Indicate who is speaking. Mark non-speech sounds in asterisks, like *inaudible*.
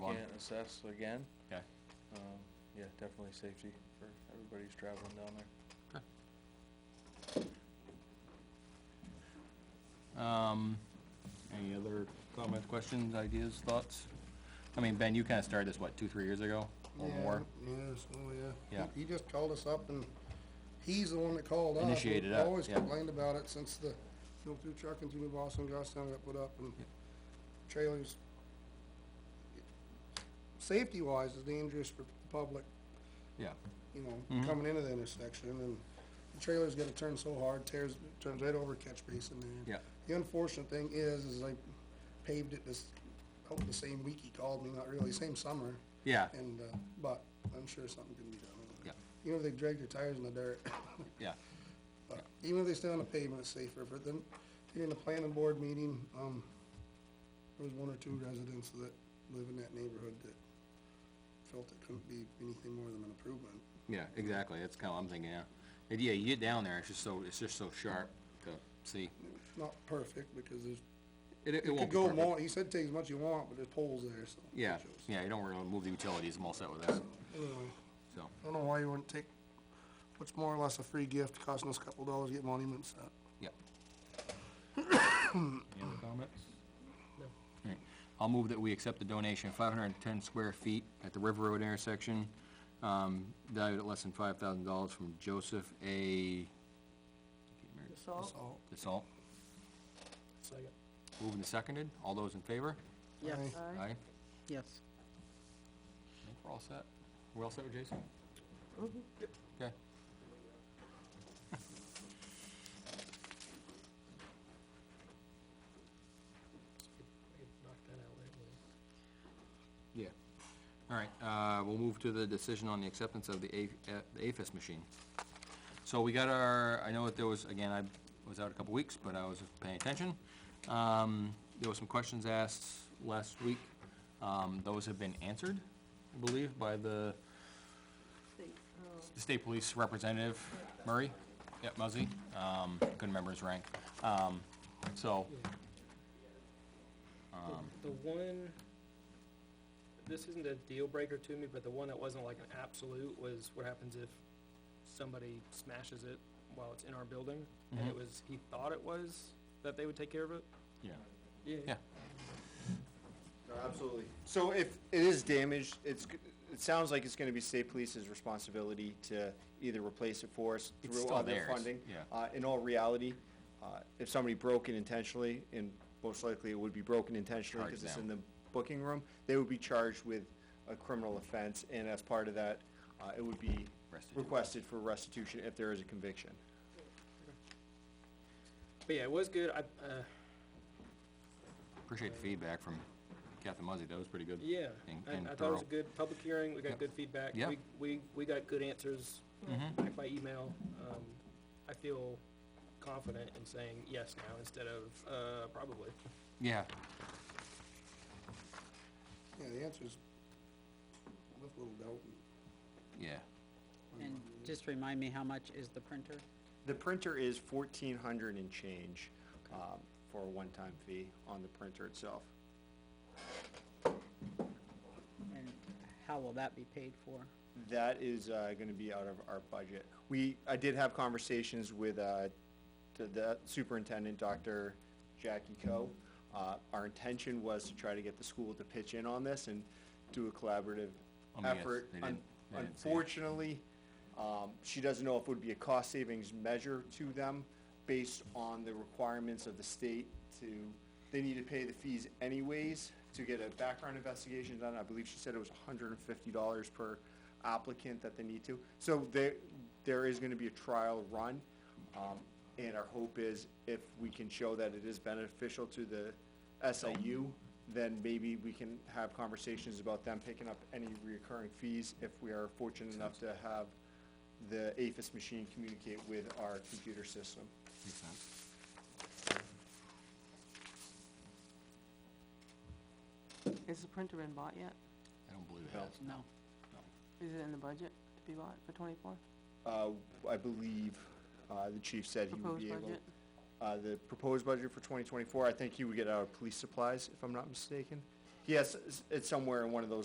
Speaker 1: assess again.
Speaker 2: Okay.
Speaker 1: Um, yeah, definitely safety for everybody who's traveling down there.
Speaker 2: Um, any other comments, questions, ideas, thoughts? I mean, Ben, you kinda started this, what, two, three years ago, or
Speaker 3: Yeah,
Speaker 2: more?
Speaker 3: Yeah, so, yeah. He-
Speaker 2: Yeah.
Speaker 3: He just called us up and he's the one that called us.
Speaker 2: Initiated
Speaker 3: We've
Speaker 2: up,
Speaker 3: Always
Speaker 2: yeah.
Speaker 3: complained about it since the, you know, through trucking through New Boston, Johnstown got put up and trailers. Safety wise is dangerous for the public,
Speaker 2: Yeah,
Speaker 3: you
Speaker 2: Mm-hmm.
Speaker 3: know, coming into the intersection and the trailer's gotta turn so hard, tears, turns right over catch basin there.
Speaker 2: yeah,
Speaker 3: The unfortunate thing is, is I paved it this, oh, the same week he called me, not really, same summer.
Speaker 2: yeah,
Speaker 3: And, uh, but I'm sure something can be done. with it.
Speaker 2: Yeah.
Speaker 3: Even if they drag their tires in the dirt, *laughs*
Speaker 2: yeah,
Speaker 3: but even if they stay on the pavement, it's safer, but then, during the planning board meeting, um, there was one or two residents that live in that neighborhood that felt it couldn't be anything more than an improvement.
Speaker 2: yeah, exactly, that's kinda what I'm thinking, yeah. And yeah, you get down there, it's just so, it's just so sharp to see.
Speaker 3: Not perfect, because there's,
Speaker 2: It, it
Speaker 3: it
Speaker 2: won't
Speaker 3: could
Speaker 2: be
Speaker 3: go
Speaker 2: perfect.
Speaker 3: more, he said take as much you want, but there's poles there, so. it
Speaker 2: Yeah,
Speaker 3: shows.
Speaker 2: yeah, you don't really move the utilities, I'm all set with that,
Speaker 3: Anyway,
Speaker 2: so,
Speaker 3: I don't know why you wouldn't take what's more or less a free gift, costing us a couple dollars, to get monuments up.
Speaker 2: *coughs* yeah. Any other comments? Alright, I'll move that we accept the donation, five hundred and ten square feet at the River Road intersection, um, valued at less than five thousand dollars from Joseph A.
Speaker 4: Salt?
Speaker 3: So,
Speaker 2: DeSalt.
Speaker 3: Second.
Speaker 2: Moved and seconded, all those in favor?
Speaker 4: Yes.
Speaker 2: Aye. I
Speaker 4: Yes.
Speaker 2: think we're all set. We're all set with Jason? Okay. Yeah. All right, uh, we'll move to the decision on the acceptance of the A, uh, the AFIS machine. So we got our, I know that there was, again, I was out a couple weeks, but I was paying attention. Um, there were some questions asked last week. Um, those have been answered, I believe, by the state police representative, Murray. Yep, Muzzy, um, couldn't remember his rank. Um, so,
Speaker 5: The one, this isn't a deal breaker to me, but the one that wasn't like an absolute was what happens if somebody smashes it while it's in our building?
Speaker 2: Mm-hmm.
Speaker 5: And it was, he thought it was, that they would take care of it?
Speaker 2: yeah, yeah,
Speaker 6: No, Absolutely. So if it is damaged, it's, g- it sounds like it's gonna be state police's responsibility to either replace it for us
Speaker 2: It's
Speaker 6: through
Speaker 2: still
Speaker 6: other
Speaker 2: theirs,
Speaker 6: funding.
Speaker 2: yeah.
Speaker 6: Uh, in all reality, uh, if somebody broke it intentionally, and most likely it would be broken intentionally
Speaker 2: Charge
Speaker 6: because it's
Speaker 2: them.
Speaker 6: in the booking room, they would be charged with a criminal offense, and as part of that, uh, it would be
Speaker 2: Restitution.
Speaker 6: requested for restitution if there is a conviction.
Speaker 5: But yeah, it was good, I, uh,
Speaker 2: appreciate the feedback from Captain Muzzy, that was pretty good.
Speaker 5: yeah,
Speaker 2: And-
Speaker 5: I,
Speaker 2: and
Speaker 5: I thought it was
Speaker 2: thorough.
Speaker 5: a good public hearing, we
Speaker 2: Yep.
Speaker 5: got good feedback.
Speaker 2: Yep.
Speaker 5: We, we, we got good answers
Speaker 2: Mm-hmm.
Speaker 5: back by email. Um, I feel confident in saying yes now instead of, uh, probably.
Speaker 2: Yeah,
Speaker 3: Yeah, the answer's with little doubt.
Speaker 2: yeah,
Speaker 4: And just remind me, how much is the printer?
Speaker 6: The printer is fourteen hundred and change, um, for a one-time fee on the printer itself.
Speaker 4: And how will that be paid for?
Speaker 6: That is uh, going to be out of our budget. We, I did have conversations with uh, the- the superintendent, Dr. Jackie Coe. Uh, Our intention was to try to get the school to pitch in on this and do a collaborative
Speaker 2: I mean, yes,
Speaker 6: effort.
Speaker 2: they didn't-
Speaker 6: Un-
Speaker 2: they didn't say.
Speaker 6: Unfortunately, um, she doesn't know if it would be a cost savings measure to them based on the requirements of the state to, they need to pay the fees anyways to get a background investigation done. I believe she said it was hundred and fifty dollars per applicant that they need to. So there, there is gonna be a trial run. Um, and our hope is if we can show that it is beneficial to the SIU, then maybe we can have conversations about them picking up any reoccurring fees if we are fortunate enough to have the APHIS machine communicate with our computer system.
Speaker 2: makes sense.
Speaker 7: Is the printer been bought yet?
Speaker 2: I don't believe it
Speaker 6: No.
Speaker 2: has.
Speaker 4: No.
Speaker 7: Is it in the budget to be bought for twenty-four?
Speaker 6: Uh, I believe, uh, the chief said he would
Speaker 7: Proposed
Speaker 6: be able.
Speaker 7: budget?
Speaker 6: Uh, the proposed budget for twenty twenty-four, I think he would get out of police supplies, if I'm not mistaken. Yes, it's- it's somewhere in one of those